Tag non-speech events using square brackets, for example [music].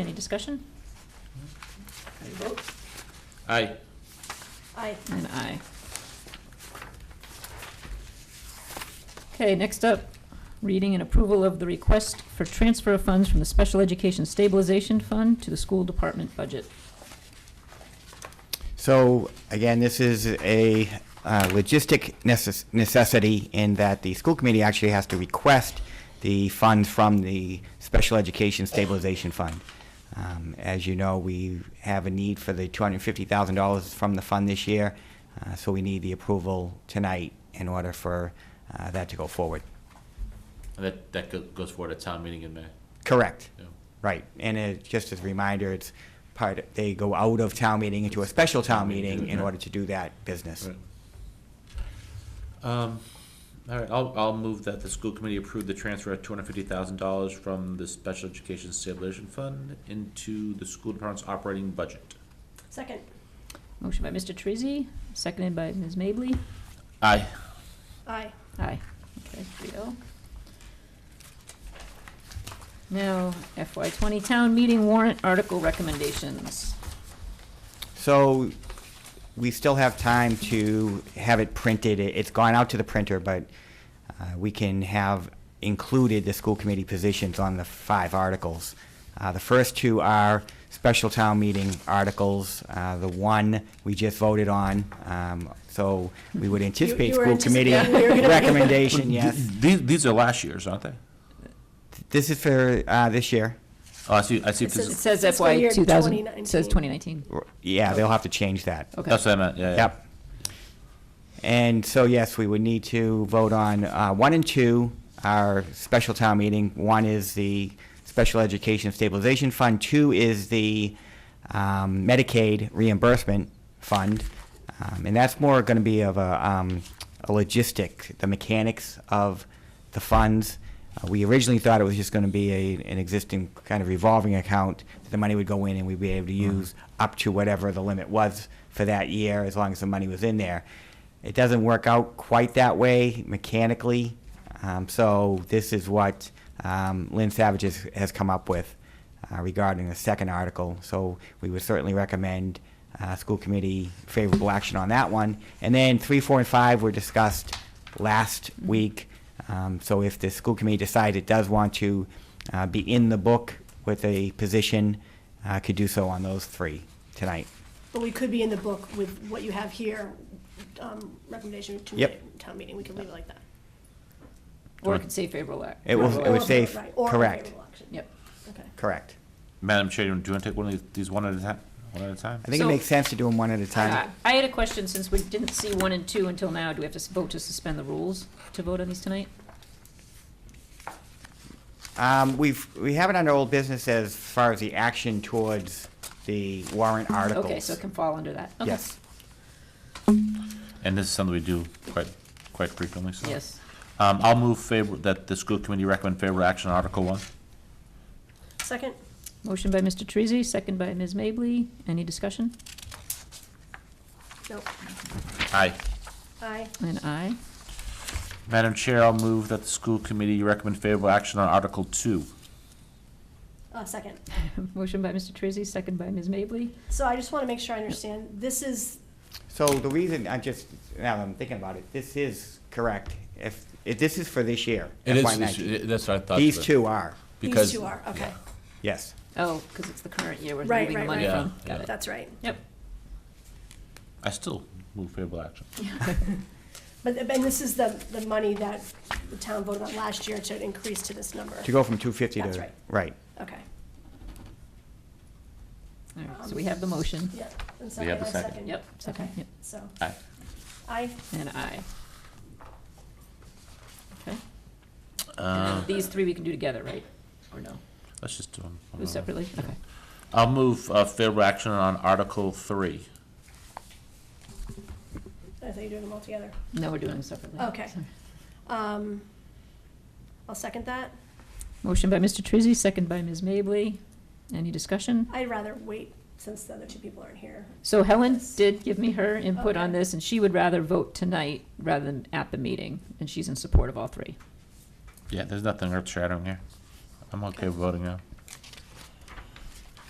Any discussion? How do you vote? Aye. Aye. And aye. Okay, next up, reading and approval of the request for transfer of funds from the Special Education Stabilization Fund to the school department budget. So, again, this is a uh, logistic necess- necessity in that the school committee actually has to request the funds from the Special Education Stabilization Fund. Um, As you know, we have a need for the $250,000 from the fund this year, uh, so we need the approval tonight in order for uh, that to go forward. And that, that go- goes forward at town meeting in May. Correct. Yeah. Right, and it, just as a reminder, it's part, they go out of town meeting into a special town meeting in order to do that business. Um, all right, I'll, I'll move that the school committee approve the transfer of two hundred fifty thousand dollars from the Special Education Stabilization Fund into the school department's operating budget. Second. Motion by Mr. Treasy, seconded by Ms. Mably. Aye. Aye. Aye. Okay, three oh. Now FY twenty town meeting warrant article recommendations. So we still have time to have it printed. It- It's gone out to the printer, but uh, we can have included the school committee positions on the five articles. Uh, The first two are special town meeting articles. Uh, The one we just voted on, um, so we would anticipate you were school committee anticipating we were gonna- recommendation, yes. These, these are last year's, aren't they? This is for uh, this year. Oh, I see, I see. It if this It is- says Fiscal FY year two thousand, 2019. says twenty nineteen. Yeah, Oh. they'll have to change that. Okay. That's what I meant, yeah, yeah. Yep. And so, yes, we would need to vote on uh, one and two, our special town meeting. One is the Special Education Stabilization Fund. Two is the um, Medicaid reimbursement fund. Um, And that's more going to be of a um, a logistic, the mechanics of the funds. Uh, We originally thought it was just going to be a- an existing kind of revolving account. that The money would go in and we'd be able to use up to whatever the limit was for that year, as long as the money was in there. It doesn't work out quite that way mechanically. Um, So this is what um, Lynn Savage has- has come up with uh, regarding the second article. So we would certainly recommend uh, school committee favorable action on that one. And then three, four, and five were discussed last week. Um, So if the school committee decides it does want to uh, be in the book with a position, uh, could do so on those three tonight. But we could be in the book with what you have here, um, recommendation to Yep. ma- town meeting, we could leave it like that. Or it could say favorable act. It will- it Or- would say f- right, or correct. favorable action. Yep. Okay. Correct. Madam Chair, do you want to take one of these, these one at a time, one at a time? I think it So- makes sense to do them one at a time. I Uh, I had a question, since we didn't see one and two until now, do we have to s- vote to suspend the rules to vote on these tonight? Um, We've, we have it under old business as far as the action towards the warrant articles. Okay, so it can fall under that. Okay. Yes. And this is something we do quite, quite frequently, so. Yes. Um, I'll move favor, that the school committee recommend favorable action on Article One. Second? Motion by Mr. Treasy, second by Ms. Mably. Any discussion? Nope. Aye. Aye. And aye. [laughs] Madam Chair, I'll move that the school committee recommend favorable action on Article Two. Uh, second. Motion by Mr. Treasy, second by Ms. Mably. So I just want to make sure I understand, this is, So the reason, I just, now that I'm thinking about it, this is correct. If, if this is for this year, It FY is, nineteen. it- that's what I thought. These but- two are, these because- two are, okay. yes. Oh, because it's the current year we're Right, moving the right, money right. from. Yeah, Got yeah. it. That's right. Yep. I still move favorable action. But, and this is the, the money that the town voted on last year to increase to this number. To go from two fifty to. That's right. Right. Okay. All right, so we have the motion. Yeah. and We have the I second. Yep, second, Okay. yep. So, Aye. aye. And aye. Okay. And Uh, then these three we can do together, right? Or no? let's just do them. one Do at a time. separately? Okay. I'll move uh, favorable action on Article Three. I thought you were doing them all together. No, we're doing them separately. Okay. Sorry. Um, I'll second that. Motion by Mr. Treasy, second by Ms. Mably. Any discussion? I'd rather wait since the other two people aren't here. So Helen did give me her input on Okay. this, and she would rather vote tonight rather than at the meeting, and she's in support of all three. Yeah, there's nothing earth shattering here. I'm okay with voting now.